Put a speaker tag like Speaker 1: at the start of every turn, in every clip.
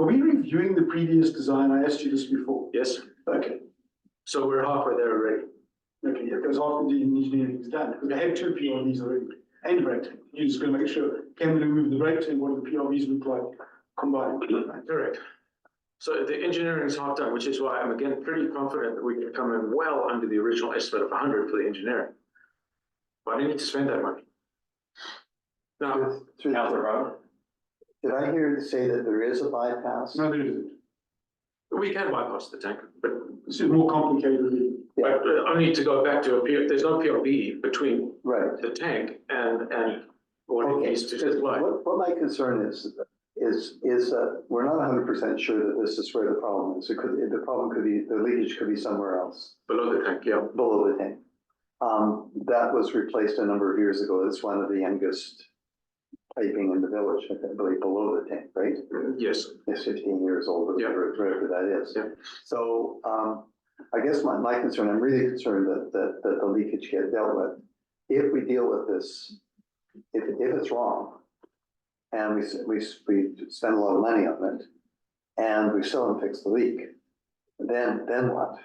Speaker 1: we reviewing the previous design? I asked you this before.
Speaker 2: Yes,
Speaker 1: Okay,
Speaker 2: so we're halfway there already.
Speaker 1: okay, yeah, because after the engineering's done, because they had two PRVs already and brake tank. You're just gonna make sure, can we remove the brake tank, what do the PRVs look like combined?
Speaker 2: Correct. So the engineering is half done, which is why I'm again pretty confident that we can come in well under the original estimate of hundred for the engineering. Why do you need to spend that money? Now,
Speaker 3: Through the- Did I hear you say that there is a bypass?
Speaker 1: No, there isn't.
Speaker 2: we can bypass the tank, but,
Speaker 1: This is more complicated.
Speaker 2: but only to go back to a P, there's no PRB between
Speaker 3: Right.
Speaker 2: the tank and, and what it
Speaker 3: Okay,
Speaker 2: needs to supply.
Speaker 3: what, what my concern is, is, is that we're not hundred percent sure that this is where the problem is. It could, the problem could be, the leakage could be somewhere else,
Speaker 2: below the tank, yeah.
Speaker 3: below the tank. Um, that was replaced a number of years ago. It's one of the youngest piping in the village, I believe, below the tank, right?
Speaker 2: Yes,
Speaker 3: is fifteen years old, or
Speaker 2: Yeah.
Speaker 3: whatever, whatever that is.
Speaker 2: Yeah.
Speaker 3: So, um, I guess my, my concern, I'm really concerned that, that, that the leakage get dealt with. If we deal with this, if, if it's wrong, and we, s- we, s- we spend a lot of money on it, and we still haven't fixed the leak, then, then what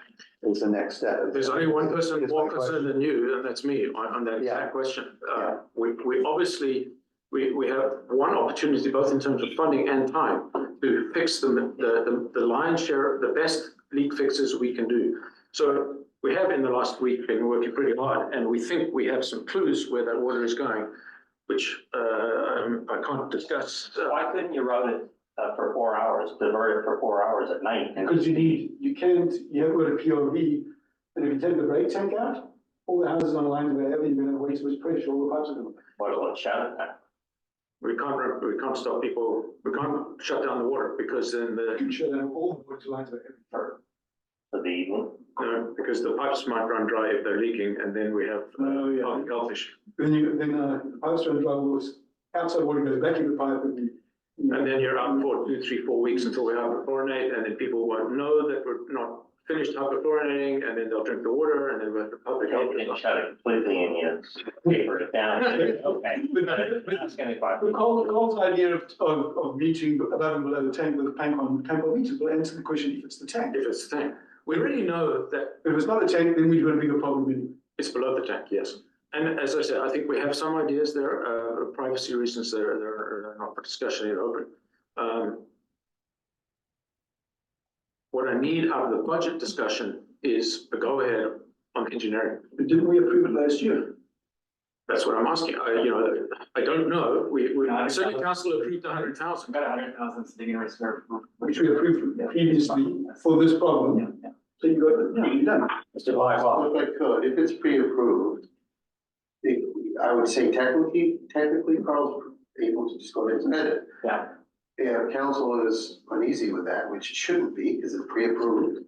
Speaker 3: is the next step?
Speaker 2: There's only one person
Speaker 3: Is my
Speaker 2: more
Speaker 3: question.
Speaker 2: concerned than you, and that's me on, on that
Speaker 3: Yeah.
Speaker 2: exact question. Uh,
Speaker 3: Yeah.
Speaker 2: we, we obviously, we, we have one opportunity, both in terms of funding and time, to fix the, the, the lion's share, the best leak fixes we can do. So we have in the last week been working pretty hard, and we think we have some clues where that water is going, which, uh, um, I can't discuss. Uh,
Speaker 4: Why couldn't you route it uh, for four hours, divert it for four hours at night? and-
Speaker 1: Because you need, you can't, you haven't got a PRV, and if you take the brake tank out, all the houses on lines wherever you're gonna have way too much pressure, all the pipes are gonna.
Speaker 4: What about shut it down?
Speaker 2: We can't, re- we can't stop people, we can't shut down the water, because then the,
Speaker 1: You can shut down all the water lines wherever.
Speaker 4: for for the evening?
Speaker 2: No, Um, because the pipes might run dry if they're leaking, and then we have
Speaker 1: Oh,
Speaker 2: uh,
Speaker 1: yeah.
Speaker 2: health- health issue.
Speaker 1: Then you, then, uh, pipes run dry, all this outside water goes back in the pipe and you.
Speaker 2: And then you're out for two, three, four weeks until we hyperchlorinate, and then people won't know that we're not finished hyperchlorinating, and then they'll drink the water, and then we have the
Speaker 4: You
Speaker 2: public health.
Speaker 4: didn't shut it completely and you tapered it down. Okay. That's gonna be fine.
Speaker 1: The Cole's, Cole's idea of, of, of meeting above and below the tank with a tank on, tank on meters, will answer the question if it's the tank.
Speaker 2: If it's the tank, we really know that
Speaker 1: If it's not the tank, then we've got a bigger problem anyway.
Speaker 2: it's below the tank, yes. And as I said, I think we have some ideas there, uh, privacy reasons, they're, they're not for discussion in open. Um, What I need out of the budget discussion is a go-ahead on engineering.
Speaker 1: But Didn't we approve it last year?
Speaker 2: That's what I'm asking. I, you know, I don't know. We, we,
Speaker 5: No, I-
Speaker 2: certainly council approved a hundred thousand.
Speaker 5: We've got a hundred thousand sitting in reserve.
Speaker 1: Which we approved previously for this problem. So you got, yeah, you done.
Speaker 6: Mr. Blackwell. If I could, if it's pre-approved, it- I would say technically, technically Carl's able to just go ahead and edit.
Speaker 5: Yeah.
Speaker 6: If council is uneasy with that, which it shouldn't be, because it's pre-approved,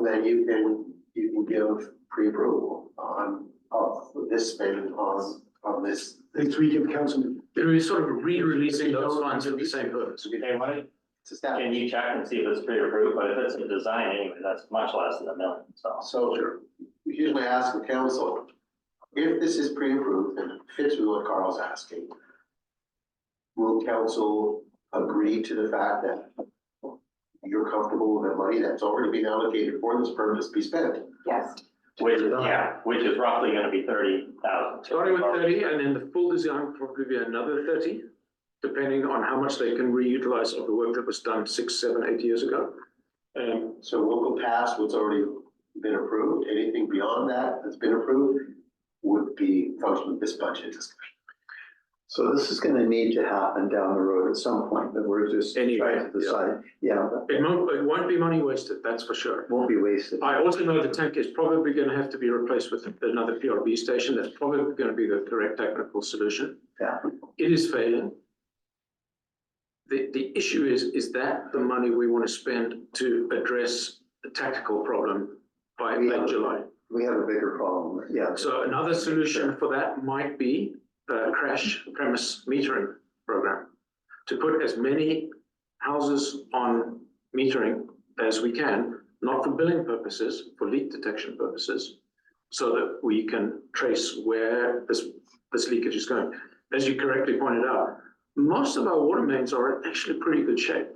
Speaker 6: then you can, you can give pre-approval on, of this spend on, on this.
Speaker 1: Next week at the council meeting.
Speaker 2: They're sort of re-releasing those funds for the same purpose.
Speaker 4: Okay, why don't,
Speaker 6: It's established.
Speaker 4: can you check and see if it's pre-approved, but if it's a design anyway, that's much less than a million, so.
Speaker 6: So here's my ask of council. If this is pre-approved and it fits with what Carl's asking, will council agree to the fact that you're comfortable with the money that's already been allocated for this purpose be spent?
Speaker 7: Yes.
Speaker 4: Which is, yeah, which is roughly gonna be thirty thousand.
Speaker 2: Starting with thirty and then the full design will probably be another thirty, depending on how much they can reutilize of the work that was done six, seven, eight years ago. Um,
Speaker 6: So we'll go past what's already been approved. Anything beyond that that's been approved would be function of this budget discussion.
Speaker 3: So this is gonna need to happen down the road at some point, that we're just
Speaker 2: Anyway,
Speaker 3: trying to
Speaker 2: yeah.
Speaker 3: decide, yeah, but
Speaker 2: it won't, it won't be money wasted, that's for sure.
Speaker 3: it won't be wasted.
Speaker 2: I also know the tank is probably going to have to be replaced with another PRB station. That's probably going to be the correct technical solution.
Speaker 3: Yeah.
Speaker 2: It is failing. The, the issue is, is that the money we want to spend to address the tactical problem by
Speaker 3: Yeah.
Speaker 2: late July?
Speaker 3: We have a bigger problem, yeah.
Speaker 2: So another solution for that might be a crash premise metering program. To put as many houses on metering as we can, not for billing purposes, for leak detection purposes. So that we can trace where this, this leakage is going. As you correctly pointed out, most of our water mains are in actually pretty good shape.